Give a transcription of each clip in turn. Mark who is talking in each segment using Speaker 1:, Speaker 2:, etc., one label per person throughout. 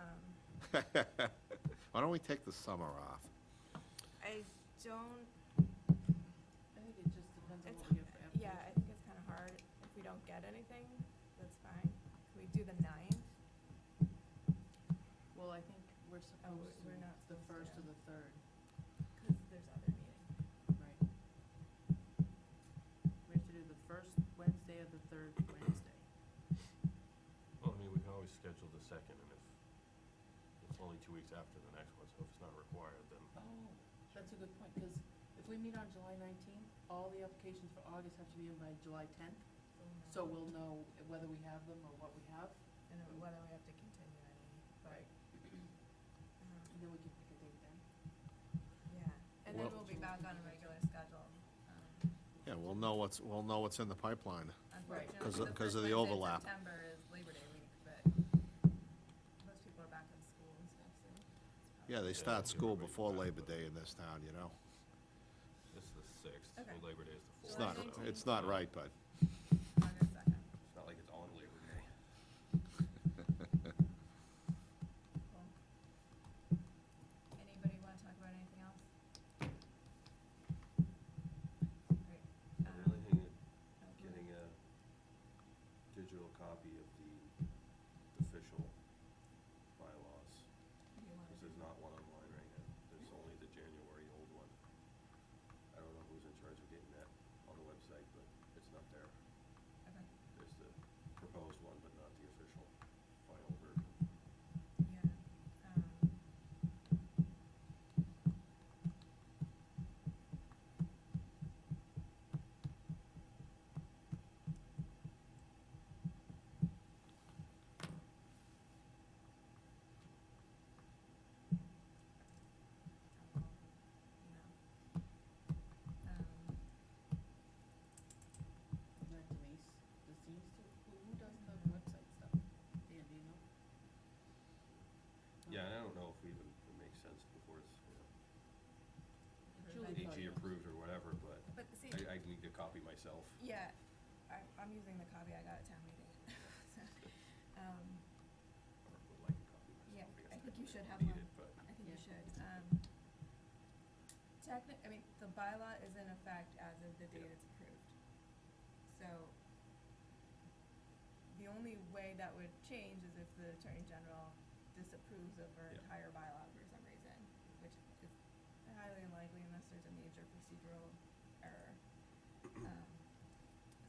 Speaker 1: um,
Speaker 2: Why don't we take the summer off?
Speaker 1: I don't,
Speaker 3: I think it just depends on
Speaker 1: it's,
Speaker 3: what we get for application.
Speaker 1: yeah, I think it's kind of hard. If we don't get anything, that's fine. Can we do the ninth?
Speaker 3: Well, I think Oh, we're supposed to,
Speaker 1: we're not
Speaker 3: it's the
Speaker 1: supposed to
Speaker 3: first or
Speaker 1: know.
Speaker 3: the third,
Speaker 1: Because there's other meetings.
Speaker 3: right? We have to do the first Wednesday or the third Wednesday.
Speaker 4: Well, I mean, we can always schedule the second, and if it's only two weeks after the next one, so if it's not required, then,
Speaker 3: Oh, that's a good point, because if we meet on July nineteenth, all the applications for August have to be in by July tenth, so we'll know whether we have them or what we have,
Speaker 1: And then whether we have to continue any, but,
Speaker 3: Right.
Speaker 1: um,
Speaker 3: and then we can pick a date then.
Speaker 1: yeah. And then
Speaker 2: Well-
Speaker 1: we'll be back on a regular schedule. um,
Speaker 2: Yeah, we'll know what's, we'll know what's in the pipeline.
Speaker 3: Right.
Speaker 1: Unfortunately,
Speaker 2: 'Cause
Speaker 1: the
Speaker 2: of- 'cause
Speaker 1: first
Speaker 2: of the
Speaker 1: Wednesday in
Speaker 2: overlap.
Speaker 1: September is Labor Day week, but most people are back in school and stuff, so. it's probably-
Speaker 2: Yeah, they
Speaker 4: Yeah,
Speaker 2: start
Speaker 4: everybody
Speaker 2: school
Speaker 4: can
Speaker 2: before
Speaker 4: buy it,
Speaker 2: Labor
Speaker 4: but-
Speaker 2: Day in this town, you know?
Speaker 4: it's the sixth,
Speaker 1: Okay.
Speaker 4: well, Labor Day is the fourth.
Speaker 2: It's
Speaker 1: July
Speaker 2: not,
Speaker 4: so-
Speaker 1: 19th.
Speaker 2: it's not right, but,
Speaker 1: August second.
Speaker 4: It's not like it's on Labor Day.
Speaker 1: Cool. Anybody wanna talk about anything else? Great.
Speaker 4: I'm
Speaker 1: Um,
Speaker 4: really thinking
Speaker 1: oh,
Speaker 4: of getting a digital copy of the official bylaws,
Speaker 1: you wanna do-
Speaker 4: because there's not one online right now. There's only the January old one. I don't know who's in charge of getting that on the website, but it's not there.
Speaker 1: Okay,
Speaker 4: There's the proposed one, but not the official final version.
Speaker 1: yeah, um. I'll, email. Um,
Speaker 3: Is that Denise, does Denise do, who, who does the website stuff? Dan, do you know?
Speaker 4: Yeah, and I don't know if we even, it makes sense before it's, you know,
Speaker 1: Julie
Speaker 3: Julie
Speaker 4: AG approved or whatever, but
Speaker 1: but see,
Speaker 4: I, I need to copy myself.
Speaker 1: Yeah, I, I'm using the copy I got at town meeting, so, um,
Speaker 4: Or would like to copy myself.
Speaker 1: Yeah,
Speaker 4: guess
Speaker 1: I think you
Speaker 4: technically
Speaker 1: should
Speaker 4: don't
Speaker 1: have
Speaker 4: need
Speaker 1: one.
Speaker 4: it, But
Speaker 1: I think you
Speaker 3: Yeah.
Speaker 1: should, um, technic, I mean, the bylaw is in effect as of the date
Speaker 4: Yeah.
Speaker 1: it's approved. So, the only way that would change is if the Attorney General disapproves of our
Speaker 4: Yeah.
Speaker 1: entire bylaw for some reason, which is highly unlikely unless there's a major procedural error. Um,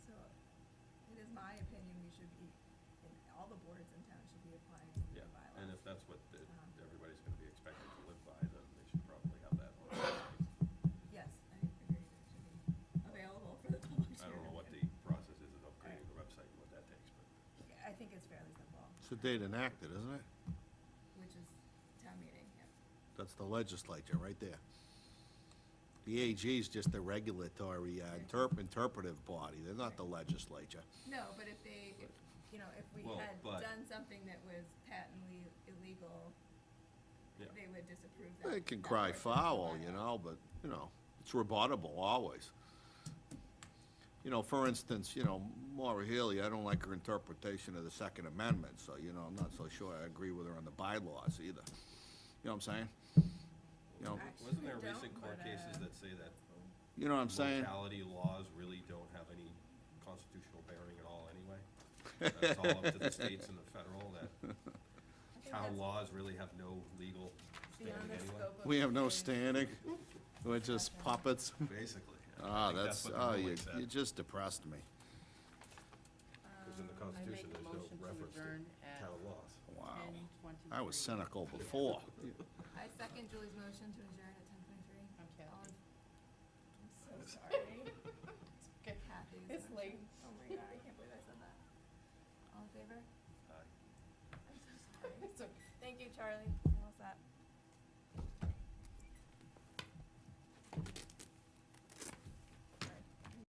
Speaker 1: So, it is my opinion we should be, and all the boards in town should be applying the new
Speaker 4: Yeah,
Speaker 1: bylaws.
Speaker 4: and if that's what the,
Speaker 1: Um,
Speaker 4: everybody's gonna be expected to live by, then they should probably have that on. the website.
Speaker 1: Yes, I agree, it should be available for the public to.
Speaker 4: I don't know what the
Speaker 1: review.
Speaker 4: process is of upgrading the website and what that takes, but
Speaker 1: Yeah, I think it's fairly simple,
Speaker 2: it's the date enacted, isn't it?
Speaker 1: which is town meeting, yeah.
Speaker 2: That's the legislature, right there. The AG is just the regulatory, uh, interp- interpretive body, they're not the legislature.
Speaker 1: No, but if they, if, you know, if we
Speaker 4: Well,
Speaker 1: had
Speaker 4: but-
Speaker 1: done something that was patently illegal,
Speaker 4: Yeah.
Speaker 1: they would disapprove that.
Speaker 2: They can
Speaker 1: that
Speaker 2: cry
Speaker 1: portion of the
Speaker 2: foul, you
Speaker 1: bylaw.
Speaker 2: know, but, you know, it's rebuttable always. You know, for instance, you know, Maura Healy, I don't like her interpretation of the Second Amendment, so, you know, I'm not so sure I agree with her on the bylaws either. You know what I'm saying? You know,
Speaker 4: wasn't there
Speaker 1: Actually,
Speaker 4: recent
Speaker 1: don't,
Speaker 4: court
Speaker 1: but,
Speaker 4: cases
Speaker 1: uh,
Speaker 4: that say that
Speaker 2: you know what I'm saying?
Speaker 4: Locality laws really don't have any constitutional bearing at all anyway. That's all up to the states and the federal, that
Speaker 1: I think
Speaker 4: town
Speaker 1: that's
Speaker 4: laws really have no legal
Speaker 1: Beyond
Speaker 4: standing
Speaker 1: the
Speaker 4: anyway.
Speaker 1: scope of.
Speaker 2: We have no
Speaker 1: the-
Speaker 2: standing, we're just puppets.
Speaker 4: Basically. I
Speaker 2: Ah,
Speaker 4: think
Speaker 2: that's,
Speaker 4: what the
Speaker 2: oh, you,
Speaker 4: ruling said.
Speaker 2: you just depressed me.
Speaker 4: Because in the
Speaker 3: Uh, I make
Speaker 4: Constitution,
Speaker 3: a
Speaker 4: there's no
Speaker 3: motion to
Speaker 4: reference
Speaker 3: adjourn
Speaker 4: to
Speaker 3: at
Speaker 4: town laws.
Speaker 2: Wow.
Speaker 3: ten twenty-three.
Speaker 2: I was cynical before.
Speaker 1: I second Julie's motion to adjourn at ten twenty-three.
Speaker 3: I'm
Speaker 1: I'm so sorry.
Speaker 3: Kathy. Okay.
Speaker 1: Kathy's
Speaker 3: It's
Speaker 1: motion.
Speaker 3: late.
Speaker 1: Oh my god, I can't believe I said that. All in favor?
Speaker 4: Aye.
Speaker 1: I'm so sorry.
Speaker 3: It's okay.
Speaker 1: Thank you, Charlie.